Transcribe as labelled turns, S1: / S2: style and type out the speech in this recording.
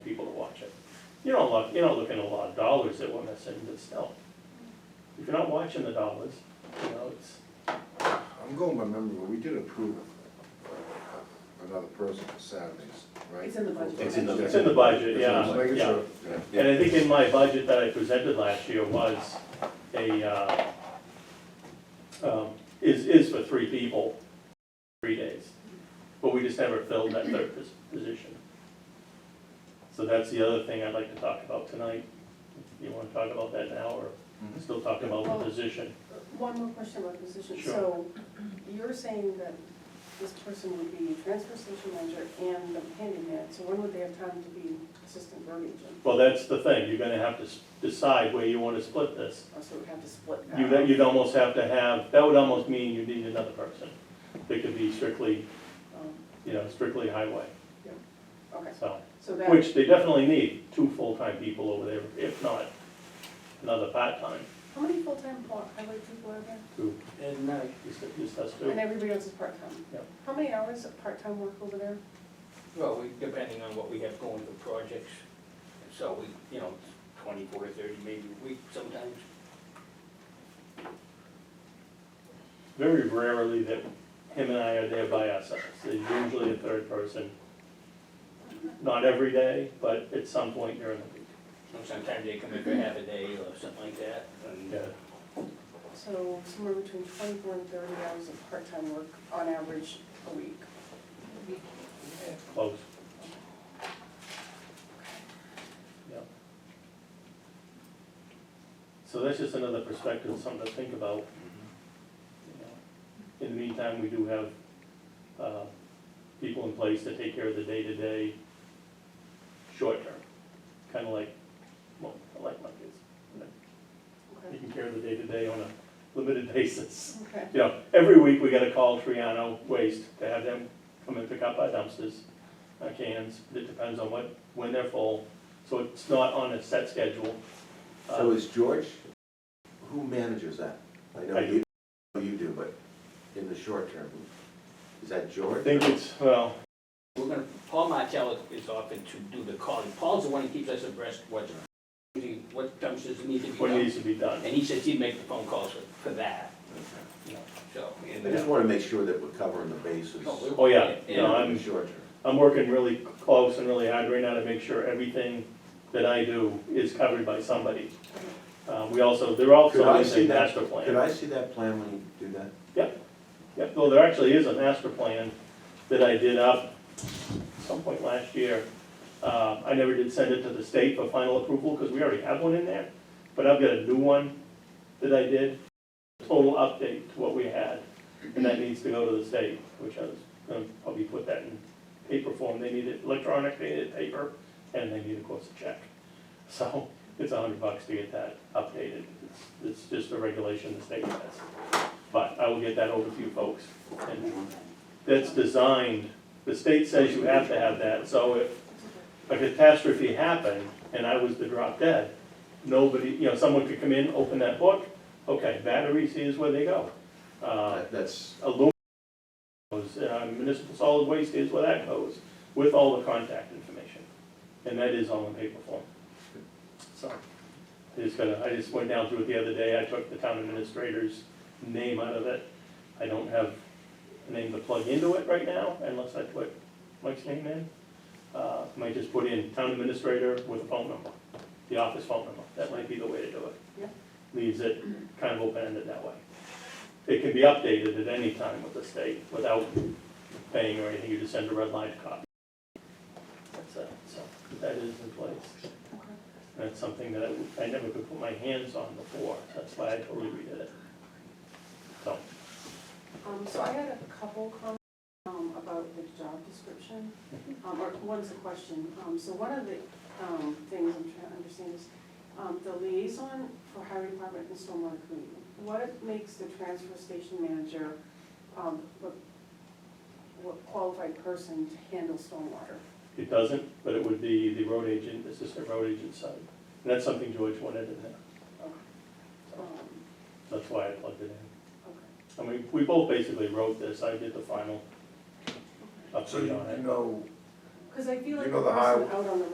S1: You don't look, you're not looking at a lot of dollars that we're missing, but still. If you're not watching the dollars, you know, it's,
S2: I'm going by memory, but we did approve another person for Saturdays, right?
S3: It's in the budget.
S4: It's in the-
S1: it's in the budget,
S2: That's what I was
S1: yeah,
S2: making
S1: yeah.
S2: sure. Yeah.
S1: And I think in my budget that I presented last year was a, uh, um, is, is for three people, three days. But we just never filled that third pos- position. So that's the other thing I'd like to talk about tonight. You wanna talk about that now, or still talking about the position?
S3: One more question about position.
S1: Sure.
S3: So you're saying that this person would be transfer station manager and the handyman, so when would they have time to be assistant road agent?
S1: Well, that's the thing, you're gonna have to s- decide where you wanna split this.
S3: Or Oh, so we'd have to split that?
S1: You, that you'd almost have to have, that would almost mean you need another person. That could be strictly,
S3: Um,
S1: you know, strictly highway,
S3: Okay,
S1: so.
S3: so that,
S1: Which they definitely need, two full-time people over there, if not another part-time,
S3: how many full-time pol- highway people are there?
S1: two,
S5: And
S4: uh,
S5: night,
S1: just, just us
S3: And
S1: two.
S3: everybody else is part-time?
S1: Yep.
S3: How many hours of part-time work over there?
S4: Well, we, depending on what we have going for projects, so we, you know, twenty-four, thirty, maybe a week sometimes.
S1: Very rarely that him and I are there by ourselves, there's usually a third person. Not every day, but at some point during the week.
S4: And Sometimes they come in for half a day or something like that, and, uh,
S1: Yeah,
S3: So somewhere between twenty-four and thirty hours of part-time work on average a week.
S1: close. Yeah. So that's just another perspective, something to think about. you know. In the meantime, we do have, uh, people in place to take care of the day-to-day, short-term, kinda like, well, I like my kids.
S3: Okay.
S1: Taking care of the day-to-day on a limited basis.
S3: Okay,
S1: You know, every week we gotta call Triano Waste to have them come and pick up our dumpsters, our cans, it depends on what, when they're full, so it's not on a set schedule. Uh,
S6: So is George, who manages that? I know
S1: I do.
S6: you, you do, but in the short term, is that
S1: I
S6: George?
S1: think it's, well,
S4: we're gonna, Paul Martell is, is often to do the calling, Paul's the one who keeps us abreast what's, what dumpsters need to be
S1: what
S4: done.
S1: needs to be done.
S4: And he says he'd make the phone calls for, for that, you know, so. and,
S6: I just
S4: uh,
S6: wanna make sure that we're covering the bases.
S4: no, we're-
S1: Oh, yeah,
S6: you
S1: no,
S6: know,
S1: I'm-
S6: In the short term.
S1: I'm working really close and really hard right now to make sure everything that I do is covered by somebody. Uh, we also, they're
S6: Could
S1: also
S6: I
S1: is a
S6: see that?
S1: master plan.
S6: Could I see that plan when you do that?
S1: Yeah, well, there actually is a master plan that I did up some point last year. Uh, I never did send it to the state for final approval, because we already have one in there, but I've got a new one that I did, total update to what we had, and that needs to go to the state, which I was gonna probably put that in paper form, they need it electronic, they need it paper, and they need, of course, a check. So, it's a hundred bucks to get that updated, it's, it's just a regulation the state has. But I will get that over to you folks. And That's designed, the state says you have to have that, so if a catastrophe happened and I was the drop dead, nobody, you know, someone could come in, open that book, okay, batteries, here's where they go. Uh,
S6: That- That's,
S1: aluminum goes, uh, municipal solid waste, here's where that goes, with all the contact information. And that is all in paper form. So, I just gotta, I just went down through it the other day, I took the town administrator's name out of it. I don't have a name to plug into it right now, unless I put Mike's name in. Uh, might just put in town administrator with a phone number, the office phone number, that might be the way to do it.
S3: Yeah.
S1: Leaves it kind of open-ended that way. It can be updated at any time with the state without paying or anything, you just send a red line copy. That's it, so that is in place. That's something that I, I never could put my hands on before, that's why I totally redid it. So,
S3: um, so I had a couple comments, um, about the job description, um, or one's a question. Um, so one of the, um, things I'm trying to understand is, um, the liaison for highway department and stormwater committee. What makes the transfer station manager, um, what, what qualified person to handle stormwater?
S1: it doesn't, but it would be the road agent, assistant road agent side. And that's something George wanted in there,
S3: Um,
S1: that's why I plugged it in.
S3: okay,
S1: I mean, we both basically wrote this, I did the final
S2: So
S1: update
S2: you
S1: on it.
S2: know,
S3: cause I feel like
S2: You
S3: the
S2: know the
S3: person
S2: highway-
S3: out on the